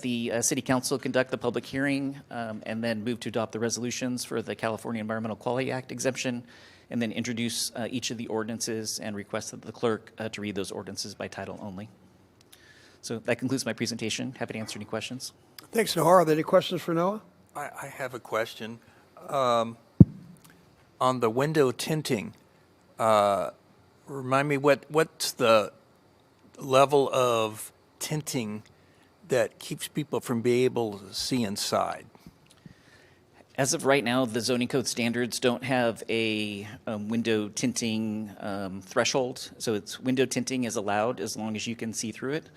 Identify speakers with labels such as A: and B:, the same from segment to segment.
A: The uh, City Council conduct the public hearing um, and then move to adopt the resolutions for the California Environmental Quality Act exemption, and then introduce uh, each of the ordinances and request that the clerk uh, to read those ordinances by title only. So that concludes my presentation. Happy to answer any questions.
B: Thanks, Noah. Are there any questions for Noah?
C: I, I have a question. Um, on the window tinting, uh, remind me what, what's the level of tinting that keeps people from being able to see inside?
A: As of right now, the zoning code standards don't have a um, window tinting um, threshold, so it's, window tinting is allowed as long as you can see through it.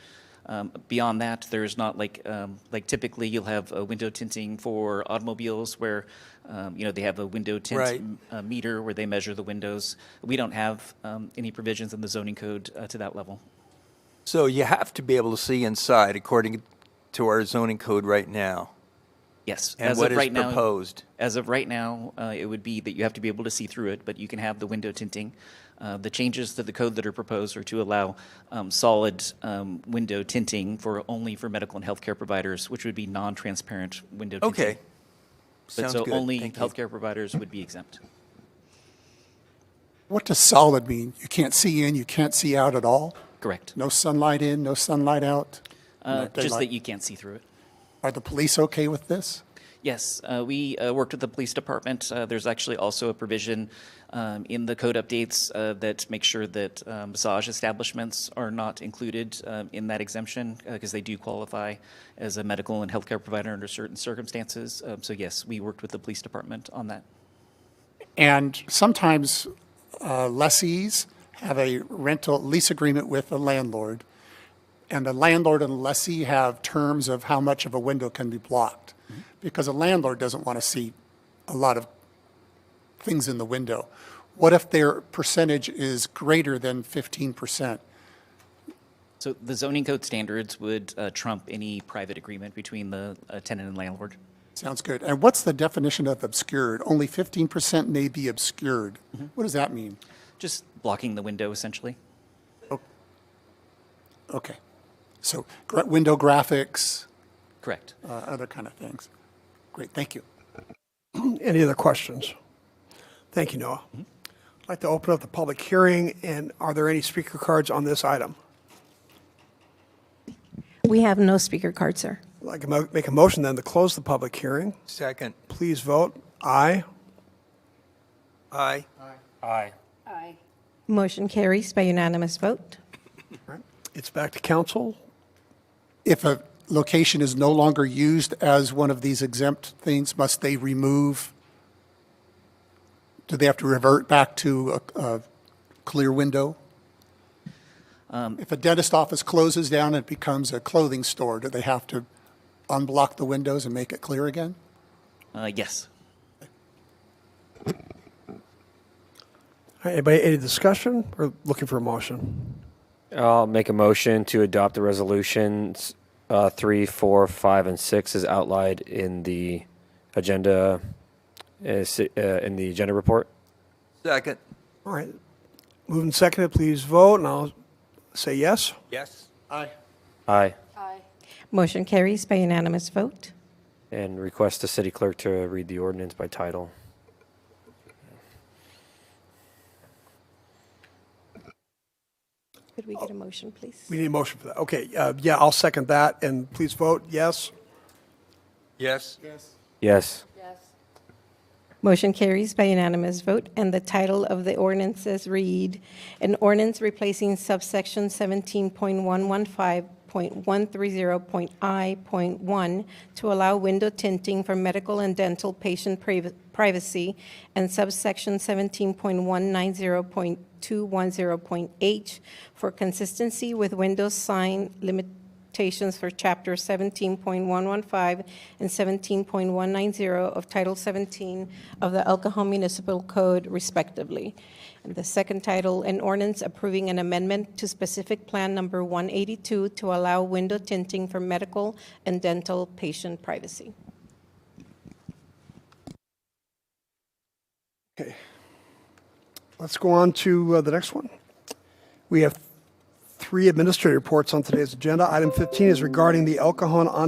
A: Um, Beyond that, there's not like, um, like typically you'll have a window tinting for automobiles where, um, you know, they have a window tint
C: Right.
A: m- uh, meter where they measure the windows. We don't have um, any provisions in the zoning code uh, to that level.
C: So you have to be able to see inside according to our zoning code right now.
A: Yes.
C: And
A: as
C: what
A: of
C: is
A: right now-
C: proposed?
A: As of right now, uh, it would be that you have to be able to see through it, but you can have the window tinting. Uh, The changes to the code that are proposed are to allow um, solid um, window tinting for, only for medical and healthcare providers, which would be non-transparent window tinting.
C: Okay.
A: But
C: Sounds
A: so
C: good.
A: only
C: Thank you.
A: healthcare providers would be exempt.
D: What does solid mean? You can't see in, you can't see out at all?
A: Correct.
D: No sunlight in, no sunlight out?
A: Uh, Just that
D: daylight.
A: you can't see through it.
D: Are the police okay with this?
A: Yes, uh, we uh, worked with the police department. Uh, There's actually also a provision um, in the code updates uh, that make sure that um, massage establishments are not included um, in that exemption because they do qualify as a medical and healthcare provider under certain circumstances. Um, So yes, we worked with the police department on that.
D: And sometimes uh, lessees have a rental lease agreement with a landlord, and the landlord and lessee have terms of how much of a window can be blocked,
A: Mm-hmm.
D: because a landlord doesn't want to see a lot of things in the window. What if their percentage is greater than 15%?
A: So the zoning code standards would uh, trump any private agreement between the uh, tenant and landlord.
D: Sounds good. And what's the definition of obscured? Only 15% may be obscured. What does that mean?
A: Just blocking the window essentially.
D: Okay. So gra- window graphics,
A: Correct.
D: uh, other kind of things. Great, thank you.
B: Any other questions? Thank you, Noah. I'd like to open up the public hearing, and are there any speaker cards on this item?
E: We have no speaker card, sir.
B: I'd like to mo- make a motion then to close the public hearing.
C: Second.
B: Please vote aye.
C: Aye.
E: Motion carries by unanimous vote.
B: It's back to council.
D: If a location is no longer used as one of these exempt things, must they remove? Do they have to revert back to a, a clear window? If a dentist office closes down and becomes a clothing store, do they have to unblock the windows and make it clear again?
A: Uh, Yes.
B: All right, Anybody, any discussion or looking for a motion?
F: I'll make a motion to adopt the resolutions uh, three, four, five, and six as outlined in the agenda uh, si- uh, in the agenda report.
C: Second.
B: All right. Moving seconded, please vote, and I'll say yes.
C: Yes.
F: Aye,
E: Motion carries by unanimous vote.
F: and request the city clerk to read the ordinance by title.
E: Could we get a motion, please?
B: We need a motion for that. Okay, uh, yeah, I'll second that, and please vote yes.
C: Yes.
F: Yes.
E: Motion carries by unanimous vote, and the title of the ordinances read, "An ordinance replacing subsection 17.115.130.I.1 to allow window tinting for medical and dental patient priv- privacy, and subsection 17.190.210.H for consistency with window sign limit limitations for Chapter 17.115 and 17.190 of Title 17 of the El Cajon Municipal Code respectively. And the second title, an ordinance approving an amendment to specific Plan Number 182 to allow window tinting for medical and dental patient privacy.
B: Okay. Let's go on to uh, the next one. We have three administrative reports on today's agenda. Item 15 is regarding the El Cajon on